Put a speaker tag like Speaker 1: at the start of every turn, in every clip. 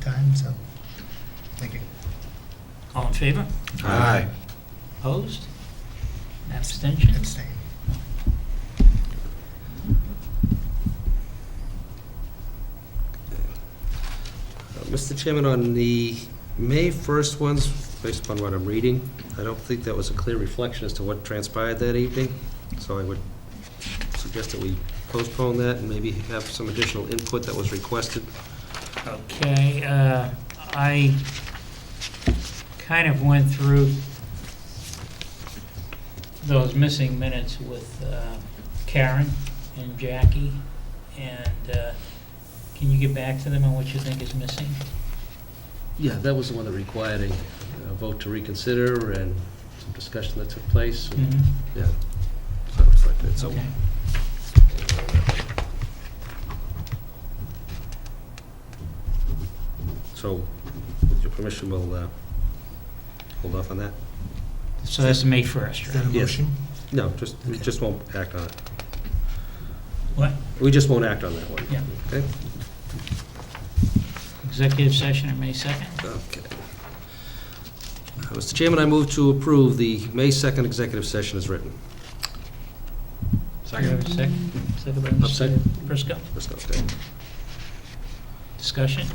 Speaker 1: time, so, thank you.
Speaker 2: All in favor?
Speaker 3: Aye.
Speaker 2: Opposed? Abstentions?
Speaker 1: Abstain.
Speaker 3: Uh, Mr. Chairman, on the May 1st ones, based upon what I'm reading, I don't think that was a clear reflection as to what transpired that evening, so I would suggest that we postpone that and maybe have some additional input that was requested.
Speaker 2: Okay, uh, I kind of went through those missing minutes with uh, Karen and Jackie, and uh, can you get back to them on what you think is missing?
Speaker 3: Yeah, that was the one that required a vote to reconsider and some discussion that took place.
Speaker 2: Mhm.
Speaker 3: Yeah. So it reflected it. So
Speaker 2: Okay.
Speaker 3: So, with your permission, we'll uh, hold off on that?
Speaker 2: So that's May 1st,
Speaker 1: Is
Speaker 2: right?
Speaker 1: that a
Speaker 3: Yes.
Speaker 1: motion?
Speaker 3: No, just, we
Speaker 1: Okay.
Speaker 3: just won't act on it.
Speaker 2: What?
Speaker 3: We just won't act on that one.
Speaker 2: Yeah.
Speaker 3: Okay?
Speaker 2: Executive session on May 2nd?
Speaker 3: Okay. Uh, Mr. Chairman, I move to approve the May 2nd executive session as written.
Speaker 2: Second. Second, second by Mr.
Speaker 3: second.
Speaker 2: Briscoe.
Speaker 3: Let's go, okay.
Speaker 2: Discussion?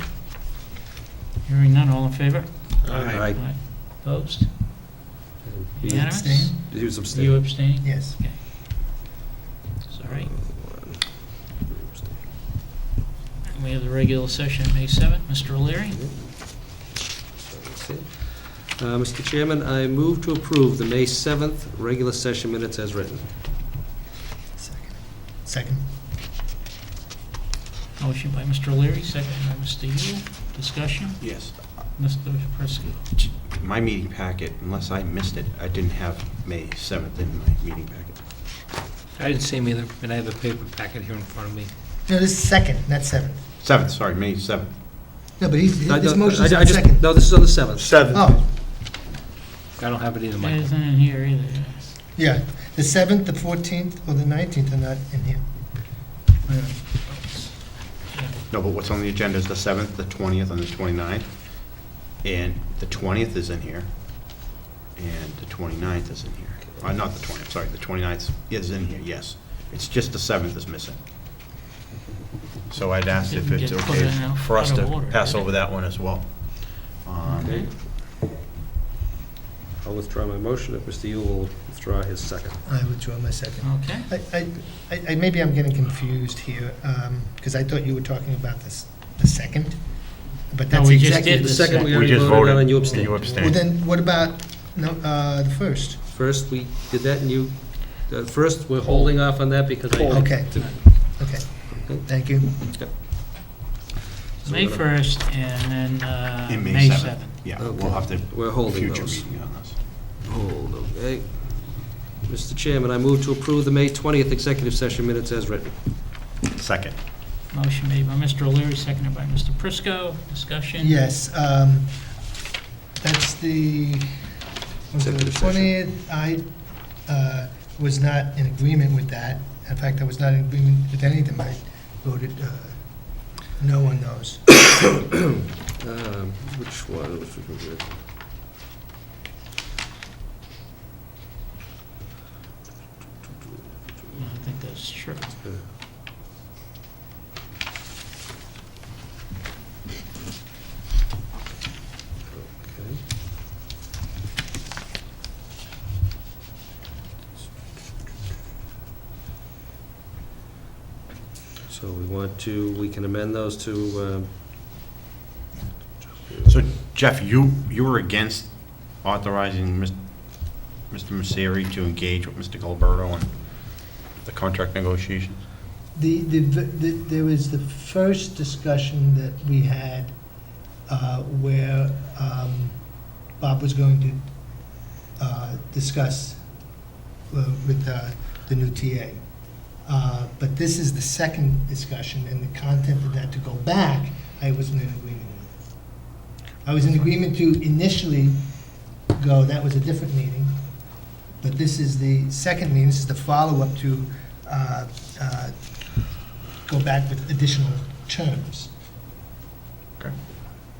Speaker 2: Hearing none, all in favor?
Speaker 3: Aye.
Speaker 2: Opposed?
Speaker 3: He-
Speaker 2: Unanimous?
Speaker 1: Abstain?
Speaker 3: He was
Speaker 2: You
Speaker 3: abstaining.
Speaker 2: abstaining?
Speaker 1: Yes.
Speaker 2: Okay. Sorry. And we have the regular session, May 7th. Mr. O'Leary?
Speaker 3: Uh, Mr. Chairman, I move to approve the May 7th regular session minutes as written.
Speaker 1: Second. Second.
Speaker 2: Motion by Mr. O'Leary, second by Mr. Yule. Discussion?
Speaker 4: Yes.
Speaker 2: Mr. Prisco?
Speaker 4: My meeting packet, unless I missed it, I didn't have May 7th in my meeting packet.
Speaker 5: I didn't see them either, and I have a paper packet here in front of me.
Speaker 1: No, this is second, not seventh.
Speaker 4: 7th, sorry, May 7th.
Speaker 1: No, but he's,
Speaker 3: I-
Speaker 1: his
Speaker 3: I-
Speaker 1: motion's
Speaker 3: I- I
Speaker 1: on
Speaker 3: just-
Speaker 1: second.
Speaker 3: No, this is on the 7th.
Speaker 1: Oh,
Speaker 5: I don't have it either,
Speaker 2: That
Speaker 5: Michael.
Speaker 2: isn't in here either. yes.
Speaker 1: yeah, the seventh, the fourteenth, or the nineteenth are not in here.
Speaker 2: Wait a minute. Yeah.
Speaker 4: No, but what's on the agenda is the 7th, the 20th, and the 29th. And the 20th is in here, and the 29th is in here. Uh, Not the 20th, sorry, the 29th is in here, yes. It's just the 7th is missing. So I'd ask if
Speaker 2: Didn't
Speaker 4: it's
Speaker 2: get
Speaker 4: okay
Speaker 2: put in out-
Speaker 4: for us
Speaker 2: out
Speaker 4: to
Speaker 2: of order,
Speaker 4: pass
Speaker 2: did it?
Speaker 4: over that one as well. Um,
Speaker 3: Okay. I'll withdraw my motion if Mr. Yule will withdraw his second.
Speaker 1: I withdraw my second.
Speaker 2: Okay.
Speaker 1: I, I- I, I- maybe I'm getting confused here, because I thought you were talking about this, the second, but
Speaker 2: No,
Speaker 1: that's
Speaker 2: we just
Speaker 1: executive.
Speaker 2: did
Speaker 3: The
Speaker 2: the
Speaker 3: second
Speaker 2: second.
Speaker 3: we already
Speaker 4: just
Speaker 3: voted on
Speaker 4: voted.
Speaker 3: and you
Speaker 4: You
Speaker 3: abstained.
Speaker 1: Well,
Speaker 4: abstained.
Speaker 1: then, what about, no, uh, the first?
Speaker 3: First, we did that and you, uh, first, we're holding off on that because I...
Speaker 1: Okay, okay. Thank you.
Speaker 3: So
Speaker 2: May
Speaker 3: we're gonna-
Speaker 2: 1st and then uh,
Speaker 4: In
Speaker 2: May 7th.
Speaker 4: Yeah,
Speaker 3: Okay.
Speaker 4: we'll have to,
Speaker 3: We're holding
Speaker 4: future
Speaker 3: those.
Speaker 4: meeting on this.
Speaker 3: Hold, okay. Mr. Chairman, I move to approve the May 20th executive session minutes as written.
Speaker 4: Second.
Speaker 2: Motion made by Mr. O'Leary, seconded by Mr. Prisco. Discussion?
Speaker 1: Yes, um, that's the, was it the
Speaker 3: Executive session.
Speaker 1: 20th? I uh, was not in agreement with that. In fact, I was not in agreement with any of them. I voted uh, no on those.
Speaker 3: Um, Which one? Which we can do?
Speaker 2: I don't think that's true.
Speaker 3: Okay. So we want to, we can amend those to, um,
Speaker 4: So Jeff, you, you were against authorizing Mis- Mr. Misery to engage with Mr. Gilberto on the contract negotiations?
Speaker 1: The, the, the- there was the first discussion that we had uh, where um, Bob was going to uh, discuss uh, with uh, the new TA. Uh, But this is the second discussion, and the content of that to go back, I wasn't in agreement with. I was in agreement to initially go, that was a different meeting, but this is the second meeting, this is the follow-up to uh, uh, go back with additional terms.